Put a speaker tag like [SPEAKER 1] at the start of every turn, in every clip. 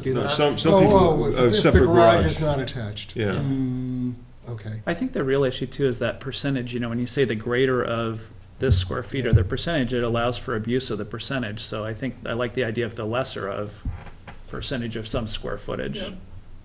[SPEAKER 1] do
[SPEAKER 2] No,
[SPEAKER 1] that.
[SPEAKER 2] some, some
[SPEAKER 3] Oh, oh,
[SPEAKER 2] people
[SPEAKER 3] if
[SPEAKER 2] have
[SPEAKER 3] if the
[SPEAKER 2] separate
[SPEAKER 3] garage is
[SPEAKER 2] garage.
[SPEAKER 3] not attached.
[SPEAKER 2] Yeah,
[SPEAKER 3] Mm, Okay,
[SPEAKER 1] I think the real issue too is that percentage, you know, when you say the greater of this square feet or the percentage, it allows for abuse of the percentage, so I think, I like the idea of the lesser of percentage of some square footage.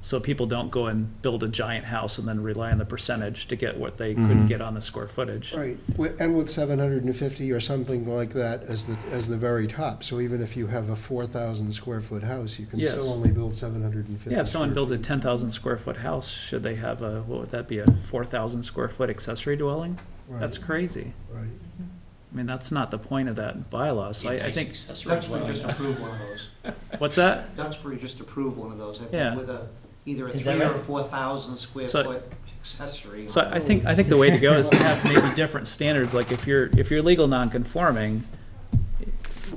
[SPEAKER 1] So people don't go and build a giant house and then rely on the percentage to get what they couldn't
[SPEAKER 2] Mhm.
[SPEAKER 1] get on the square footage.
[SPEAKER 3] right, Wi- and with seven hundred and fifty or something like that as the, as the very top, so even if you have a four thousand square foot house, you can still
[SPEAKER 1] Yes.
[SPEAKER 3] only build seven hundred and fifty.
[SPEAKER 1] Yeah, if someone builds a ten thousand square foot house, should they have a, what would that be, a four thousand square foot accessory dwelling? That's crazy.
[SPEAKER 3] Right,
[SPEAKER 1] I mean, that's not the point of that bylaw, so I, I think,
[SPEAKER 4] Duxbury just approved one of those.
[SPEAKER 1] what's that?
[SPEAKER 4] Duxbury just approved one of those, I
[SPEAKER 1] Yeah.
[SPEAKER 4] think, with a, either a
[SPEAKER 5] Is that
[SPEAKER 4] three or
[SPEAKER 5] right?
[SPEAKER 4] four thousand square
[SPEAKER 1] So-
[SPEAKER 4] foot accessory.
[SPEAKER 1] So I think, I think the way to go is to have maybe different standards, like if you're, if you're legal non-conforming,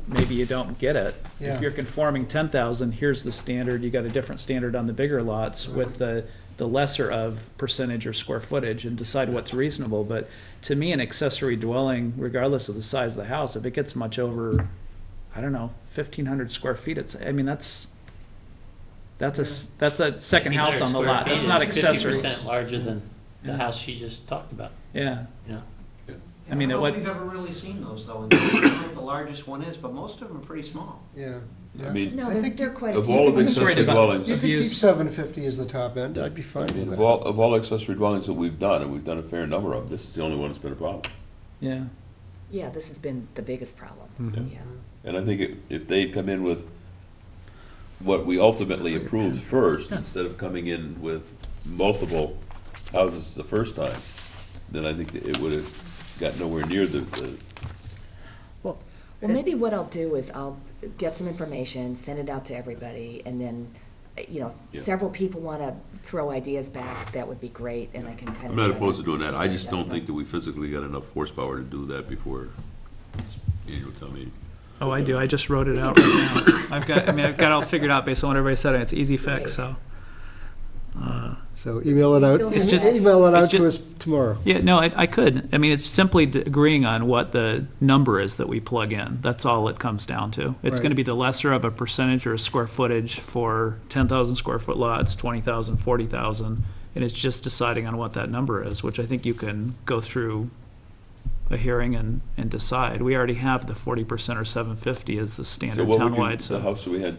[SPEAKER 1] maybe you don't get it. If
[SPEAKER 3] Yeah.
[SPEAKER 1] you're conforming ten thousand, here's the standard, you got a different standard on the bigger lots with the, the lesser of percentage or square footage and decide what's reasonable, but to me, an accessory dwelling, regardless of the size of the house, if it gets much over, I don't know, fifteen hundred square feet, it's, I mean, that's, that's a, s- that's a second house on the lot, that's not accessory,
[SPEAKER 5] Fifty percent larger than the
[SPEAKER 1] Yeah.
[SPEAKER 5] house she just talked about,
[SPEAKER 1] yeah.
[SPEAKER 5] you know?
[SPEAKER 1] I mean,
[SPEAKER 4] don't know
[SPEAKER 1] what-
[SPEAKER 4] if we've ever really seen those, though, and I think the largest one is, but most of them are pretty small.
[SPEAKER 3] yeah.
[SPEAKER 6] I mean,
[SPEAKER 3] I
[SPEAKER 7] No, they're,
[SPEAKER 3] think
[SPEAKER 7] they're quite. a
[SPEAKER 6] of
[SPEAKER 7] few.
[SPEAKER 6] all of the
[SPEAKER 1] just worried
[SPEAKER 6] accessory
[SPEAKER 1] about-
[SPEAKER 6] dwellings,
[SPEAKER 3] You
[SPEAKER 6] I
[SPEAKER 3] could keep
[SPEAKER 1] Abuse-
[SPEAKER 3] seven fifty as the top end, I'd be fine
[SPEAKER 6] mean,
[SPEAKER 3] with
[SPEAKER 6] of
[SPEAKER 3] that.
[SPEAKER 6] all, of all accessory dwellings that we've done, and we've done a fair number of, this is the only one that's been a problem.
[SPEAKER 1] Yeah,
[SPEAKER 7] Yeah, this has been the biggest problem,
[SPEAKER 6] Mm-hmm.
[SPEAKER 7] yeah.
[SPEAKER 6] And I think if- if they'd come in with what we ultimately approved first,
[SPEAKER 1] Yeah.
[SPEAKER 6] instead of coming in with multiple houses the first time, then I think that it would have got nowhere near the, the,
[SPEAKER 7] Well, maybe what I'll do is I'll get some information, send it out to everybody, and then, uh, you know,
[SPEAKER 6] Yeah.
[SPEAKER 7] several people want to throw ideas back, that would be great, and I can kind of.
[SPEAKER 6] I'm not
[SPEAKER 7] try
[SPEAKER 6] opposed to doing that, I just don't think that we physically got enough horsepower to do that before annual town meeting.
[SPEAKER 1] oh, I do, I just wrote it out right now. I've got, I mean, I've got it all figured out based on what everybody said, and it's easy fix, so. Uh,
[SPEAKER 3] So email it out,
[SPEAKER 7] It's just-
[SPEAKER 3] email it out
[SPEAKER 1] it's
[SPEAKER 3] to us
[SPEAKER 1] just-
[SPEAKER 3] tomorrow.
[SPEAKER 1] Yeah, no, I, I could, I mean, it's simply d- agreeing on what the number is that we plug in, that's all it comes down to. It's gonna
[SPEAKER 3] Right.
[SPEAKER 1] be the lesser of a percentage or a square footage for ten thousand square foot lots, twenty thousand, forty thousand, and it's just deciding on what that number is, which I think you can go through a hearing and, and decide. We already have the forty percent or seven fifty as the
[SPEAKER 6] So
[SPEAKER 1] standard
[SPEAKER 6] what would you,
[SPEAKER 1] townwide,
[SPEAKER 6] the
[SPEAKER 1] so
[SPEAKER 6] house that we had,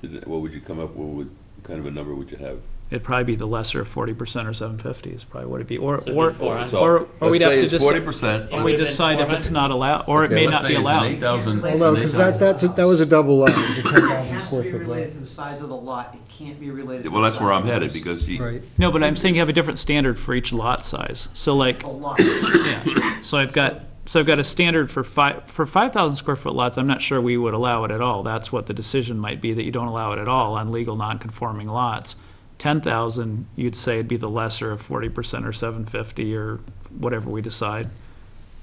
[SPEAKER 6] today, what would you come up, what would, what kind of a number would you have?
[SPEAKER 1] it'd probably be the lesser of forty percent or seven fifty is probably what it'd be, or,
[SPEAKER 5] So it'd be
[SPEAKER 1] or,
[SPEAKER 5] four hundred.
[SPEAKER 6] So,
[SPEAKER 1] Uh, or- or we'd
[SPEAKER 6] let's
[SPEAKER 1] have
[SPEAKER 6] say
[SPEAKER 1] to
[SPEAKER 6] it's
[SPEAKER 1] just-
[SPEAKER 6] 40%.
[SPEAKER 1] or we
[SPEAKER 5] Would've been
[SPEAKER 1] decide if it's
[SPEAKER 5] 400.
[SPEAKER 1] not allowed, or it
[SPEAKER 6] Okay,
[SPEAKER 1] may
[SPEAKER 6] let's
[SPEAKER 1] not
[SPEAKER 6] say
[SPEAKER 1] be
[SPEAKER 6] it's an
[SPEAKER 1] allowed.
[SPEAKER 6] 8,000
[SPEAKER 4] Well,
[SPEAKER 3] Although, because that, that's, a- that was a double lot, it was a ten
[SPEAKER 4] It
[SPEAKER 3] thousand
[SPEAKER 4] has to
[SPEAKER 3] square
[SPEAKER 4] be
[SPEAKER 3] foot
[SPEAKER 4] related
[SPEAKER 3] lot.
[SPEAKER 4] to the size of the lot, it can't be related to the size.
[SPEAKER 6] Well, that's where I'm
[SPEAKER 4] of the
[SPEAKER 6] headed,
[SPEAKER 4] house.
[SPEAKER 6] because you,
[SPEAKER 3] Right,
[SPEAKER 1] No, but I'm saying you have a different standard for each lot size. So like,
[SPEAKER 4] A lot,
[SPEAKER 1] yeah, so I've got, so I've got a standard for five, for five thousand square foot lots, I'm not sure we would allow it at all. That's what the decision might be, that you don't allow it at all on legal non-conforming lots. Ten thousand, you'd say it'd be the lesser of forty percent or seven fifty or whatever we decide.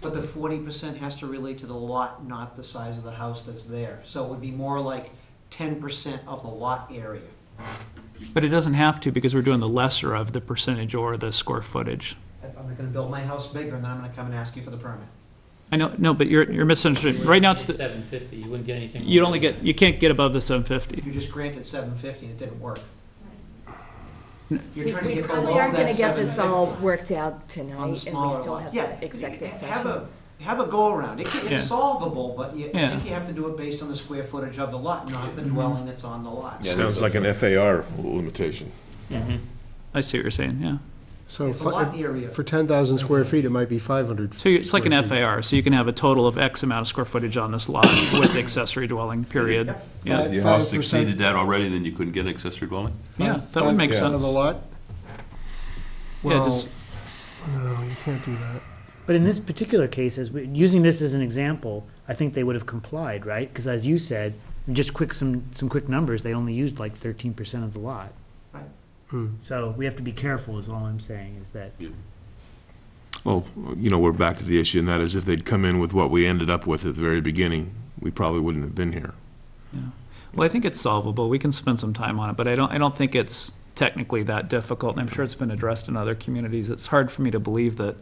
[SPEAKER 4] but the forty percent has to relate to the lot, not the size of the house that's there. So it would be more like ten percent of the lot area.
[SPEAKER 1] But it doesn't have to, because we're doing the lesser of the percentage or the square footage.
[SPEAKER 4] I'm gonna build my house bigger, and then I'm gonna come and ask you for the permit.
[SPEAKER 1] I know, no, but you're, you're misunderstanding. Right now, it's the,
[SPEAKER 5] Seven fifty, you wouldn't get anything.
[SPEAKER 1] you'd only get, you can't get above the seven fifty.
[SPEAKER 4] You just granted seven fifty and it didn't work. You're
[SPEAKER 7] We
[SPEAKER 4] trying to
[SPEAKER 7] we
[SPEAKER 4] get
[SPEAKER 7] probably
[SPEAKER 4] below
[SPEAKER 7] aren't going
[SPEAKER 4] that
[SPEAKER 7] to get
[SPEAKER 4] seven
[SPEAKER 7] this all
[SPEAKER 4] fifty.
[SPEAKER 7] worked out tonight, and we still have
[SPEAKER 4] Yeah,
[SPEAKER 7] the executive
[SPEAKER 4] have
[SPEAKER 7] session.
[SPEAKER 4] a- Have a go-around, It-
[SPEAKER 1] Yeah.
[SPEAKER 4] it's solvable, but you, I
[SPEAKER 1] Yeah. Mm-hmm.
[SPEAKER 4] think you have to do it based on the square footage of the lot, not the dwelling that's on the lot.
[SPEAKER 6] Yeah.
[SPEAKER 2] sounds like an FAR limitation.
[SPEAKER 1] I see what you're saying, yeah.
[SPEAKER 3] so
[SPEAKER 4] It's a lot
[SPEAKER 3] fi-
[SPEAKER 4] area.
[SPEAKER 3] for ten thousand square feet, it might be five hundred.
[SPEAKER 1] So you- it's like an FAR, so you can have a total of X amount of square footage on this lot with accessory dwelling, period.
[SPEAKER 4] Yep.
[SPEAKER 1] Yeah,
[SPEAKER 3] Five-
[SPEAKER 6] Your house
[SPEAKER 3] 5%.
[SPEAKER 6] exceeded that already, then you couldn't get an accessory dwelling?
[SPEAKER 1] yeah, that would make
[SPEAKER 3] Out of
[SPEAKER 1] sense.
[SPEAKER 3] the lot?
[SPEAKER 1] Yeah,
[SPEAKER 3] Well,
[SPEAKER 1] just-
[SPEAKER 3] no, you can't do that.
[SPEAKER 8] But in this particular case, as, we- using this as an example, I think they would have complied, right? Because as you said, just quick, some, some quick numbers, they only used like thirteen percent of the lot.
[SPEAKER 4] Right.
[SPEAKER 8] So we have to be careful is all I'm saying, is that,
[SPEAKER 2] Well, you know, we're back to the issue, and that is if they'd come in with what we ended up with at the very beginning, we probably wouldn't have been here.
[SPEAKER 1] Well, I think it's solvable, we can spend some time on it, but I don't, I don't think it's technically that difficult, and I'm sure it's been addressed in other communities. It's hard for me to believe that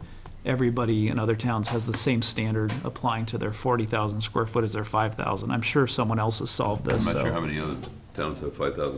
[SPEAKER 1] everybody in other towns has the same standard applying to their forty thousand square foot as their five thousand. I'm sure someone else has solved
[SPEAKER 6] I'm
[SPEAKER 1] this,
[SPEAKER 6] not sure
[SPEAKER 1] so.
[SPEAKER 6] how many other towns have five thousand